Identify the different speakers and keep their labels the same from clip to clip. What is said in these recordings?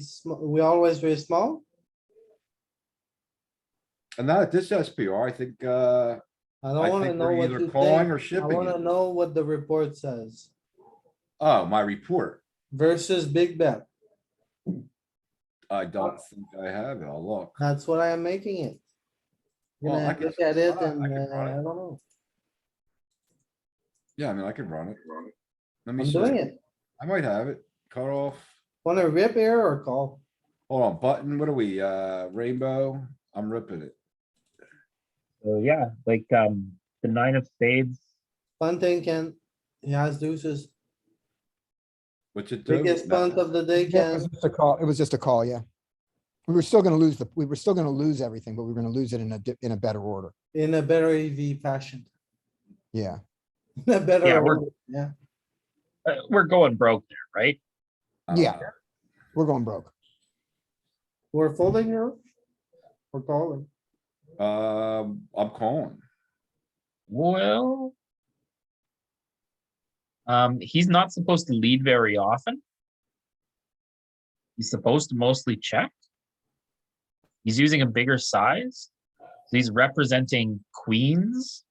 Speaker 1: sm- we always very small.
Speaker 2: And not at this SPR, I think, uh,
Speaker 1: I
Speaker 2: I
Speaker 1: don't wanna
Speaker 2: think
Speaker 1: know
Speaker 2: we're
Speaker 1: what
Speaker 2: either
Speaker 1: you
Speaker 2: calling or
Speaker 1: think. I
Speaker 2: shipping
Speaker 1: wanna
Speaker 2: it.
Speaker 1: know what the report says
Speaker 2: oh, my report.
Speaker 1: versus big bet.
Speaker 2: I don't think I have it. I'll look.
Speaker 1: That's what I am making it.
Speaker 2: Well, I
Speaker 1: Gonna
Speaker 2: can-
Speaker 1: look at it
Speaker 2: I
Speaker 1: and,
Speaker 2: can
Speaker 1: uh,
Speaker 2: run
Speaker 1: I
Speaker 2: it.
Speaker 1: don't know.
Speaker 2: Yeah, I mean, I can run it. Let me
Speaker 1: I'm doing
Speaker 2: see.
Speaker 1: it.
Speaker 2: I might have it. Cut off.
Speaker 1: Wanna rip air or call?
Speaker 2: Hold on, button. What are we? Uh, rainbow? I'm ripping it.
Speaker 3: So yeah, like um the nine of spades,
Speaker 1: Fun thing, Ken. He has deuces.
Speaker 2: What's it do?
Speaker 1: Biggest
Speaker 2: Nah.
Speaker 1: punt of the day,
Speaker 4: Yeah, it was
Speaker 1: Ken.
Speaker 4: just a call. It was just a call, yeah. We were still gonna lose the, we were still gonna lose everything, but we were gonna lose it in a, di- in a better order.
Speaker 1: in a better EV fashion.
Speaker 4: Yeah,
Speaker 1: A
Speaker 3: Yeah,
Speaker 1: better,
Speaker 3: we're-
Speaker 1: order, yeah.
Speaker 3: uh, we're going broke there, right?
Speaker 2: I don't
Speaker 4: Yeah.
Speaker 2: know.
Speaker 4: we're going broke.
Speaker 1: We're folding here. We're calling.
Speaker 2: Um, I'm calling.
Speaker 3: Well. Um, he's not supposed to lead very often. He's supposed to mostly check. He's using a bigger size. He's representing queens.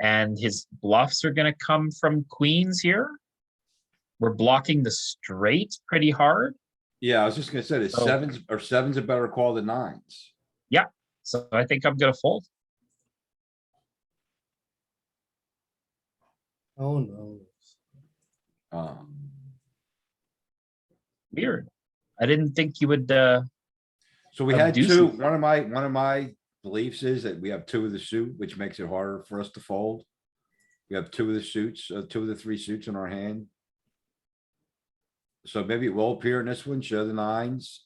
Speaker 3: And his bluffs are gonna come from queens here. We're blocking the straight pretty hard.
Speaker 2: Yeah, I was just gonna say, the
Speaker 3: So-
Speaker 2: sevens or sevens a better call than nines.
Speaker 3: So I think I'm gonna fold.
Speaker 1: Oh, no.
Speaker 2: Um,
Speaker 3: Weird. I didn't think you would, uh,
Speaker 2: so we
Speaker 3: Of
Speaker 2: had two,
Speaker 3: deuces.
Speaker 2: one of my, one of my beliefs is that we have two of the suit, which makes it harder for us to fold. We have two of the suits, uh, two of the three suits in our hand. So maybe it will appear in this one, show the nines.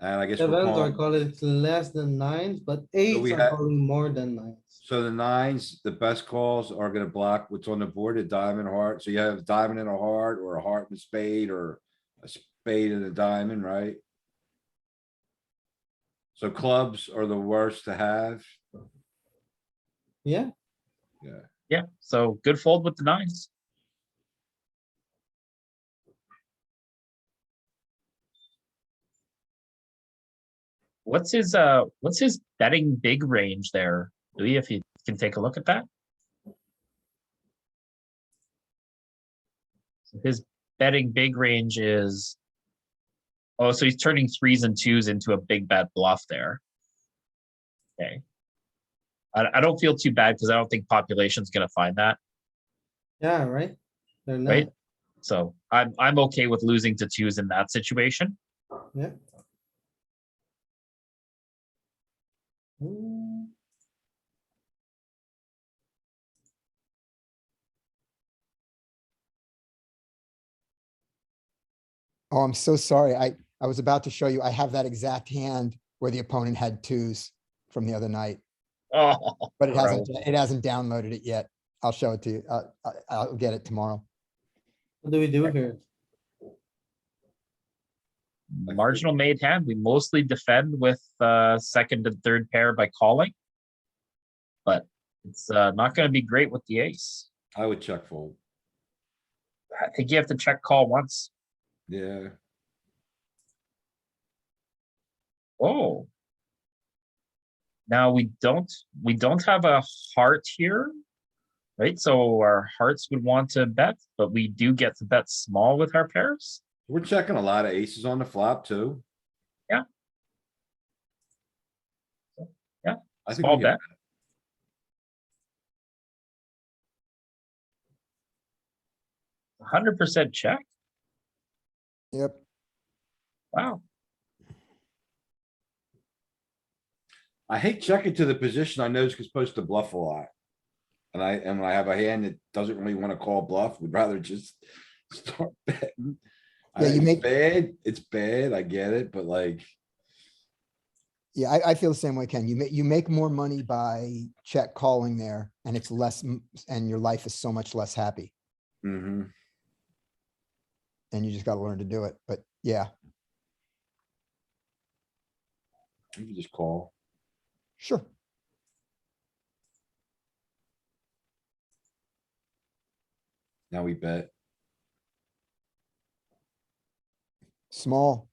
Speaker 2: And I guess we're
Speaker 1: Sevens are
Speaker 2: calling.
Speaker 1: calling less than nines, but
Speaker 2: we
Speaker 1: eights are
Speaker 2: had-
Speaker 1: calling more than nines.
Speaker 2: So the nines, the best calls are gonna block what's on the board, a diamond heart. So you have a diamond and a heart or a heart and spade or a spade and a diamond, right? So clubs are the worst to have.
Speaker 1: Yeah,
Speaker 3: yeah, so good fold with the nines. What's his, uh, what's his betting big range there? Louis, if you can take a look at that? So His betting big range is, oh, so he's turning threes and twos into a big bet bluff there. Okay. I, I don't feel too bad because I don't think population's gonna find that,
Speaker 1: yeah, right? They're not.
Speaker 3: right? So I'm, I'm okay with losing to twos in that situation.
Speaker 1: Mm,
Speaker 4: Oh, I'm so sorry. I, I was about to show you, I have that exact hand where the opponent had twos from the other night,
Speaker 3: Oh,
Speaker 4: but it hasn't, it hasn't downloaded it yet. I'll show it to you. Uh, I, I'll get it tomorrow.
Speaker 1: What do we do here?
Speaker 3: marginal made hand, we mostly defend with, uh, second and third pair by calling. But it's, uh, not gonna be great with the ace.
Speaker 2: I would check fold.
Speaker 3: I think you have to check call once.
Speaker 2: Yeah,
Speaker 3: Oh. Now we don't, we don't have a heart here. Right, so our hearts would want to bet, but we do get to bet small with our pairs.
Speaker 2: we're checking a lot of aces on the flop too.
Speaker 3: Yeah. Yeah,
Speaker 2: I think
Speaker 3: Small
Speaker 2: we can-
Speaker 3: bet. Hundred percent check,
Speaker 4: Yep.
Speaker 3: wow.
Speaker 2: I hate checking to the position I know is supposed to bluff a lot. And I, and when I have a hand that doesn't really want to call bluff, would rather just start betting. I-
Speaker 4: Yeah, you
Speaker 2: it's
Speaker 4: make-
Speaker 2: Bad, it's bad, I get it, but like,
Speaker 4: Yeah, I, I feel the same way, Ken. You make, you make more money by check calling there and it's less, m- and your life is so much less happy
Speaker 2: mhm.
Speaker 4: and you just gotta learn to do it. But yeah,
Speaker 2: you can just call.
Speaker 4: sure.
Speaker 2: Now we bet.
Speaker 4: Small.